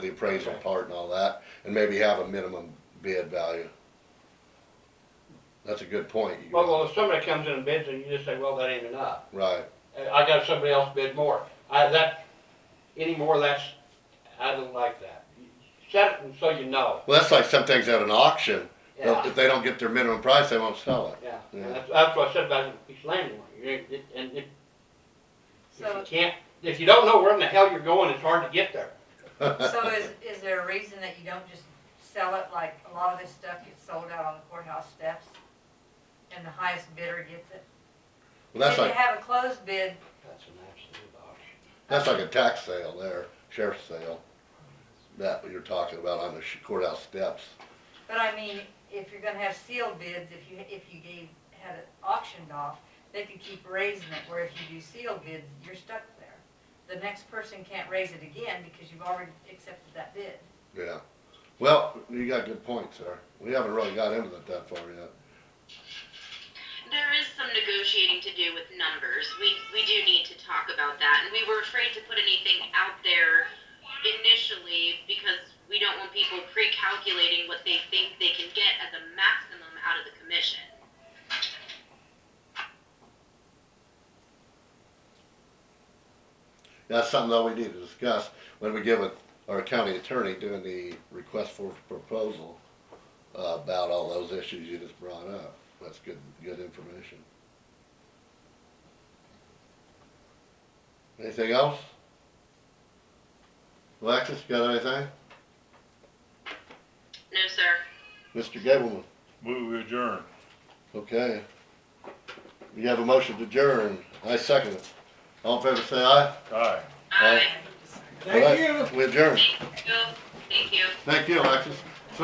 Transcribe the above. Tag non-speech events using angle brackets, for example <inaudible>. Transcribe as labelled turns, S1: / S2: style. S1: the appraisal part and all that, and maybe have a minimum bid value. That's a good point. you-
S2: Well, well, if somebody comes in and bids and you just say, well, that ain't enough,
S1: Right,
S2: Uh, I got somebody else bid more, I, that, any more, that's, I don't like that. Set it and so you know,
S1: well, that's like some things at an auction,
S2: yeah,
S1: if if they don't get their minimum price, they won't sell it. <laughs>
S2: yeah,
S1: Yeah.
S2: and that's, that's what I said about the piece of land, you ain't- it- and if, if you
S3: So,
S2: can't, if you don't know where in the hell you're going, it's hard to get there.
S3: so is, is there a reason that you don't just sell it, like, a lot of this stuff gets sold out on the courthouse steps? And the highest bidder gets it?
S1: Well, that's
S3: Then you
S1: like,
S3: have a closed bid,
S2: That's an absolute option.
S1: that's like a tax sale there, sheriff's sale, that you're talking about on the courthouse steps.
S3: but I mean, if you're gonna have sealed bids, if you, if you gave, had it auctioned off, they could keep raising it, where if you do sealed bids, you're stuck there. The next person can't raise it again, because you've already accepted that bid.
S1: Yeah. Well, you got good points there. We haven't really got into that that far yet.
S4: There is some negotiating to do with numbers. We we do need to talk about that, and we were afraid to put anything out there initially because we don't want people pre-calculating what they think they can get as a maximum out of the commission.
S1: That's something that we need to discuss when we get with our county attorney doing the request for proposal uh, about all those issues you just brought up. That's good, good information. Anything else? Alexis, you got anything?
S4: No, sir.
S1: Mr. Gableman,
S5: Move adjourn.
S1: okay. You have a motion to adjourn. I second it. All in favor, say aye.
S5: Aye.
S1: Aye.
S4: Aye.
S1: Thank you. We adjourn.
S4: Thank you. Thank you.
S1: Thank you, Alexis.